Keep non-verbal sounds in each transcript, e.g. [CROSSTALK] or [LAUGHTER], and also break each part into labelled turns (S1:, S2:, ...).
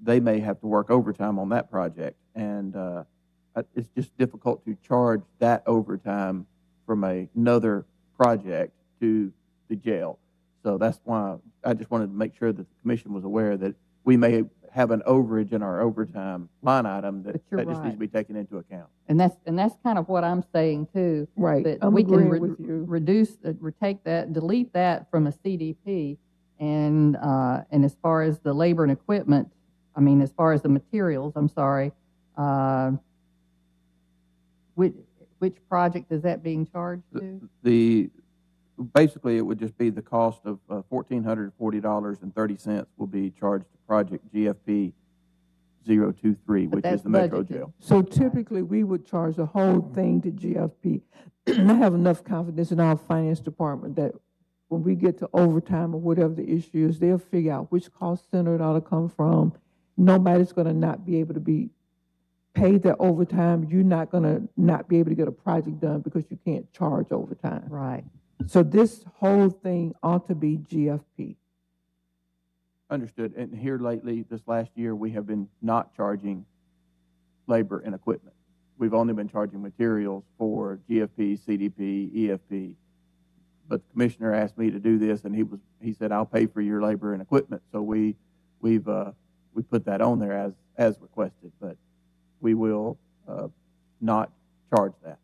S1: they may have to work overtime on that project. And uh, I- it's just difficult to charge that overtime from a- another project to the jail. So that's why I just wanted to make sure that the commission was aware that we may have an overage in our overtime line item that,
S2: But you're
S1: that just needs to
S2: right.
S1: be taken into account.
S3: And that's, and that's kind of what I'm saying too.
S2: Right,
S3: But
S2: I'm
S3: we can re-
S2: agreeing with you.
S3: reduce, uh, re- take that, delete that from a CDP. And, uh, and as far as the labor and equipment, I mean, as far as the materials, I'm sorry, uh, which, which project is that being charged to?
S1: The, basically, it would just be the cost of uh, fourteen hundred forty dollars and thirty cents will be charged to project GFP 023,
S3: But
S1: which is
S3: that's
S1: the Metro
S3: budgeted.
S1: Jail.
S2: So typically, we would charge the whole thing to [CLEARS THROAT] GFP. I have enough confidence in our finance department that when we get to overtime or whatever the issue is, they'll figure out which cost center it ought to come from. Nobody's gonna not be able to be paid their overtime. You're not gonna not be able to get a project done because you can't charge overtime.
S3: Right.
S2: So this whole thing ought to be GFP.
S1: Understood. And here lately, this last year, we have been not charging labor and equipment. We've only been charging materials for GFP, CDP, EFP. E But the commissioner asked me to do this, and he was, he said, I'll pay for your labor and equipment. So we, we've, uh, we put that on there as, as requested, but we will, uh, not charge that.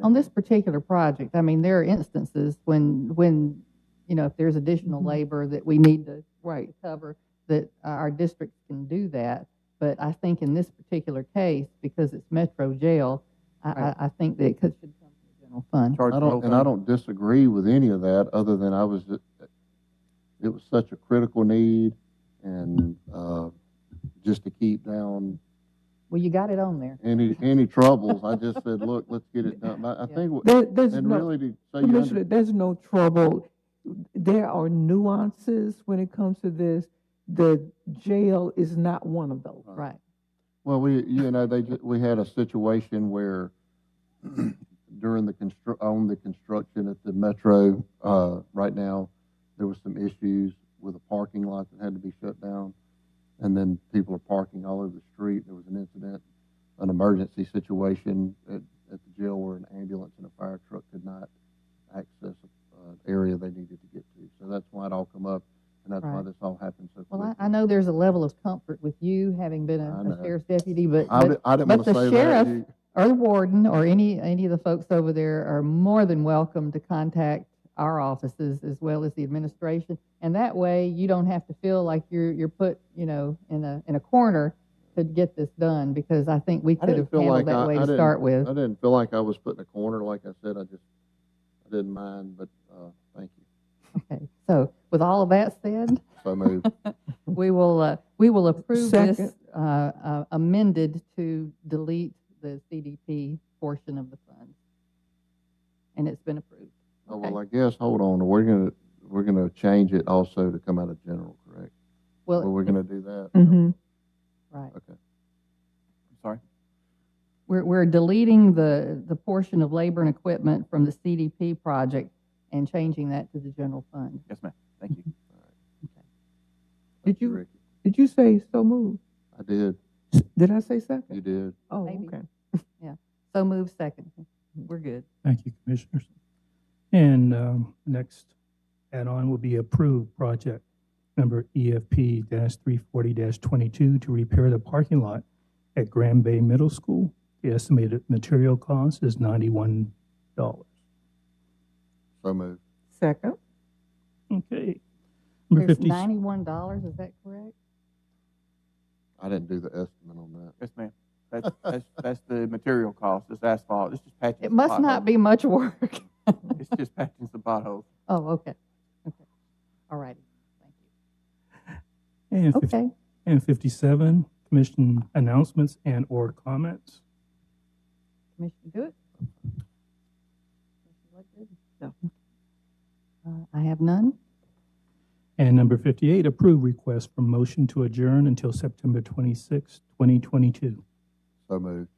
S3: On
S4: Mm-hmm.
S3: this particular project, I mean, there are instances when, when, you know, if there's additional
S4: Mm-hmm.
S2: Mhm.
S3: labor that we need to
S2: Right.
S3: to cover, that uh, our district can do that. But I think in this particular case, because it's Metro Jail, I, I,
S2: Right.
S3: I think that it could, should come from the general fund.
S1: Charge
S4: I
S1: the whole
S4: don't, and I
S1: thing.
S4: don't disagree with any of that, other than I was, just- it was such a critical need, and, uh, just to keep down
S3: Well, you got it on there.
S4: any, any troubles, I just said, look, let's get it done. I, I
S3: Yeah.
S4: think, what-
S2: There, there's
S4: and
S2: no.
S4: really, to say you
S2: Commissioner,
S4: under,
S2: there's no trouble. There are nuances when it comes to this. The jail is not one of those.
S4: Right.
S3: Right.
S4: well, we, you know, they, ju- we had a situation where [CLEARS THROAT] during the constru, on the construction at the Metro, uh, right now, there was some issues with a parking lot that had to be shut down. And then people are parking all over the street. There was an incident, an emergency situation at, at the jail where an ambulance and a fire truck could not access an area they needed to get to. So that's why it all come up, and that's why
S3: Right.
S4: this all happened so quickly.
S3: Well, I, I know there's a level of comfort with you having been
S4: I
S3: a-
S4: know.
S3: a sheriff's deputy, but,
S4: I
S3: but,
S4: di- I didn't
S3: but
S4: want
S3: the
S4: to say
S3: sheriff-
S4: that. You-
S3: or the warden, or any, any of the folks over there are more than welcome to contact our offices as well as the administration. And that way, you don't have to feel like you're, you're put, you know, in a, in a corner to get this done, because I think we
S4: I
S3: could
S4: didn't
S3: have
S4: feel
S3: handled
S4: like
S3: that
S4: I-
S3: way
S4: I
S3: to
S4: didn't-
S3: start with.
S4: I didn't feel like I was put in a corner. Like I said, I just, I didn't mind, but, uh, thank you.
S3: Okay, so with all of that
S4: [LAUGHS]
S3: said,
S2: [LAUGHS]
S4: So moved.
S3: we will, uh, we will approve this
S2: Second.
S3: uh, uh, amended to delete the CDP portion of the fund. And it's been approved.
S4: Oh,
S3: Okay.
S4: well, I guess, hold on, we're gonna, we're gonna change it also to come out of general, correct?
S2: Oh,
S4: Well,
S3: Well,
S4: we're gonna do that?
S2: Mm-hmm.
S3: right.
S4: Okay.
S1: I'm Sorry.
S3: We're, we're deleting the, the portion of labor and equipment from the CDP project and changing that to the general fund.
S1: Yes, ma'am. Thank you.
S2: Did
S4: Thank
S2: you-
S4: Ricky.
S2: Did you say so moved?
S4: I did,
S2: Did I say second?
S4: you did.
S2: Oh,
S3: Maybe.
S2: okay.
S3: So move second. We're good.
S5: Thank you, Commissioners. And um, next add-on will be approved project number E EFP three forty twenty-two to repair the parking lot at Grand Bay Middle School. The estimated material cost is ninety-one dollars.
S4: So moved.
S2: Second,
S5: Okay. Number
S3: There's
S5: fifty,
S3: ninety-one dollars, is that correct?
S4: I didn't do the estimate on that.
S1: Yes, ma'am. That's, that's, that's the material cost. It's asphalt. It's just patching.
S3: It
S1: some
S3: must not
S1: potholes.
S3: be much work. [LAUGHS]
S1: It's just patching some potholes.
S3: Oh, okay. Okay. All righty. Thank you.
S5: and fifty,
S3: Okay.
S5: and fifty-seven, commission announcements and/or comments.
S3: Commissioner, do it. Commissioner Ledford?
S2: No.
S3: Uh, I have none.
S5: And number fifty-eight, approve request for motion to adjourn until September twenty-sixth, twenty twenty-two.
S4: So moved.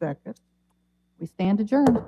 S2: second.
S3: We stand adjourned.